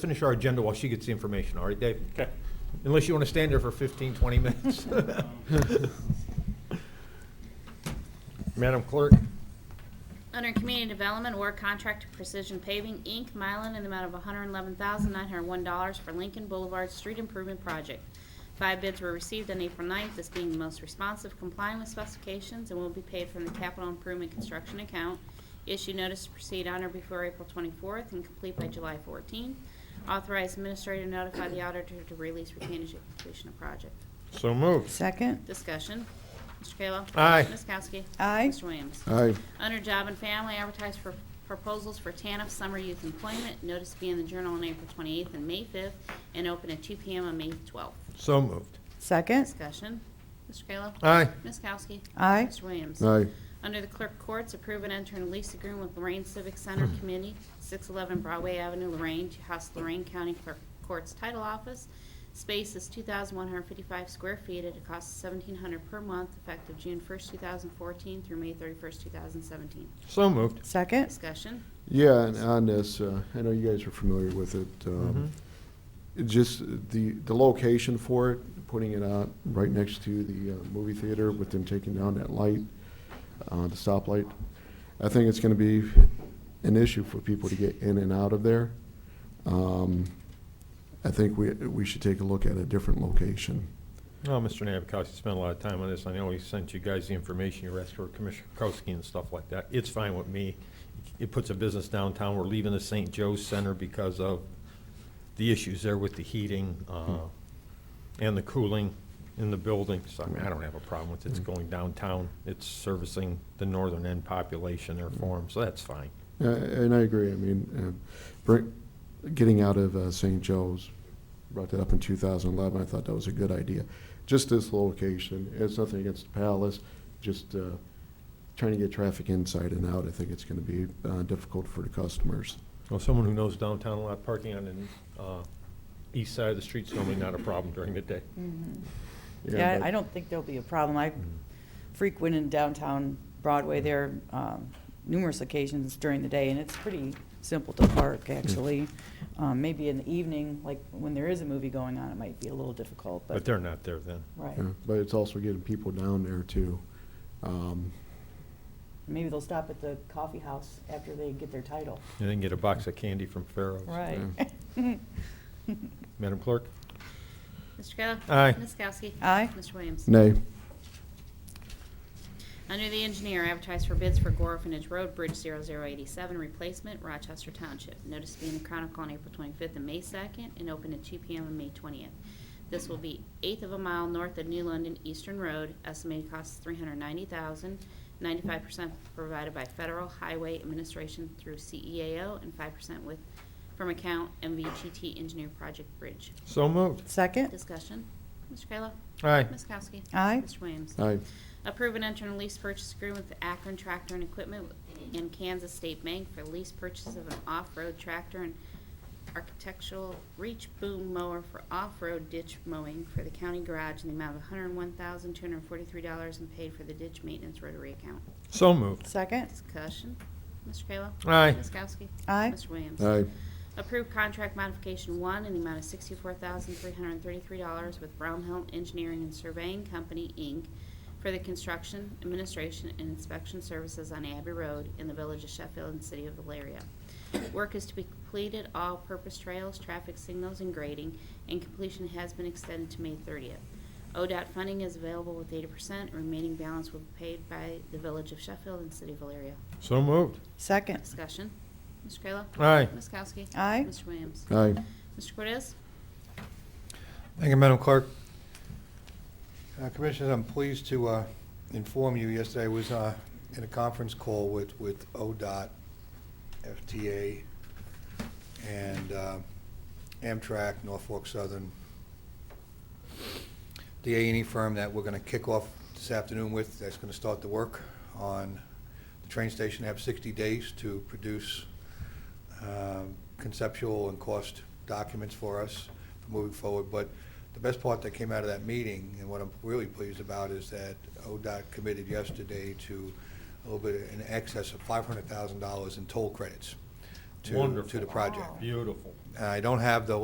finish our agenda while she gets the information, all right, Dave? Okay. Unless you want to stand there for 15, 20 minutes. Madam Clerk? Under Community Development, award contract to Precision Paving, Inc., Mylan, in the amount of $111,901 for Lincoln Boulevard Street Improvement Project. Five bids were received on April 9th, this being the most responsive, complying with specifications, and will be paid from the Capital Improvement Construction Account. Issue notice to proceed on or before April 24th and complete by July 14th. Authorize administrator to notify the auditor to release retainage at completion of project. So moved. Second, Discussion. Mr. Kayla? Aye. Ms. Kowski? aye. Mr. Williams? aye, Under Job and Family, advertise for proposals for TANF summer youth employment. Notice to be in the Journal on April 28th and May 5th, and open at 2 PM on May 12th. So moved. Second, Discussion. Mr. Kayla? Aye. Ms. Kowski? aye. Mr. Williams? aye, Under the Clerk Courts, approve and enter a lease agreement with Lorraine Civic Center Committee, 611 Broadway Avenue, Lorraine, to house Lorraine County Clerk Courts Title Office. Space is 2,155 square feet at a cost of $1,700 per month, effective June 1st, 2014 through May 31st, 2017. So moved. Second, Discussion. yeah, and on this, uh, I know you guys are familiar with it. Mhm. um, it Just the, the location for it, putting it out right next to the uh, movie theater with them taking down that light, uh, the stoplight. I think it's gonna be an issue for people to get in and out of there. Um, I think we, we should take a look at a different location. Oh, Mr. Navakowski spent a lot of time on this. I know he sent you guys the information you asked for, Commissioner Kowski and stuff like that. It's fine with me. It puts a business downtown. We're leaving the St. Joe's Center because of the issues there with the heating uh, and the cooling in the building. So I mean, I don't have a problem with it. It's going downtown. It's servicing the northern end population there for 'em, so that's fine. Uh, And I agree. I mean, uh, bring- getting out of uh, St. Joe's, brought that up in 2011. I thought that was a good idea. Just this location, it's nothing against the Palace, just uh, trying to get traffic inside and out. I think it's going to be uh, difficult for the customers. Well, someone who knows downtown a lot, parking on the uh, east side of the street's normally not a problem during the day. Mm-hmm. yeah, Mm. but- I don't think there'll be a problem. I Mm. frequent in downtown Broadway there um, numerous occasions during the day, and it's pretty simple to park, actually. Um, Maybe in the evening, like when there is a movie going on, it might be a little difficult, But but, they're not there then. right. yeah, But it's also getting people down there too. Um, Maybe they'll stop at the coffee house after they get their title. You didn't get a box of candy from Pharaoh's. Right. Madam Clerk? Mr. Kayla? Aye. Ms. Kowski? Aye. Mr. Williams? Nay, Under the engineer, advertise for bids for Gore Orphanage Road Bridge 0087 replacement, Rochester Township. Notice to be in the Chronicle on April 25th and May 2nd, and open at 2 PM on May 20th. This will be eighth of a mile north of New London Eastern Road, estimated cost is $390,000, 95% provided by Federal Highway Administration through CEAO, and 5% with, from account MVGT Engineer Project Bridge. So moved. Second, Discussion, Mr. Kayla? Aye. Ms. Kowski? Aye. Mr. Williams? aye, Approve an interim lease purchase agreement with Akron Tractor and Equipment and Kansas State Bank for lease purchase of an off-road tractor and architectural reach boom mower for off-road ditch mowing for the county garage in the amount of $101,243 and paid for the ditch maintenance rotary account. So moved. second, Discussion. Mr. Kayla? Aye. Ms. Kowski? aye. Mr. Williams? aye, Approved contract modification one in the amount of sixty-four thousand, three hundred and thirty-three dollars with Brown Hill Engineering and Surveying Company, Inc. for the construction, administration, and inspection services on Abbey Road in the village of Sheffield and city of Valeria. Work is to be completed, all-purpose trails, traffic signals, and grading, and completion has been extended to May thirtieth. ODOT funding is available with eighty percent, remaining balance will be paid by the village of Sheffield and city of Valeria. So moved. Second, Discussion. Mr. Kayla? Aye. Ms. Kowski? Aye. Mr. Williams? aye. Mr. Cortez? Thank you, Madam Clerk. Uh, Commissioners, I'm pleased to uh, inform you, yesterday I was uh, in a conference call with, with ODOT, FTA, and uh, Amtrak, Norfolk Southern, the A&E firm that we're going to kick off this afternoon with, that's going to start the work on the train station, They have 60 days to produce um, conceptual and cost documents for us for moving forward. But the best part that came out of that meeting, and what I'm really pleased about, is that ODOT committed yesterday to a little bit in excess of $500,000 in toll credits to- to Wonderful. the project. Beautiful. I don't have the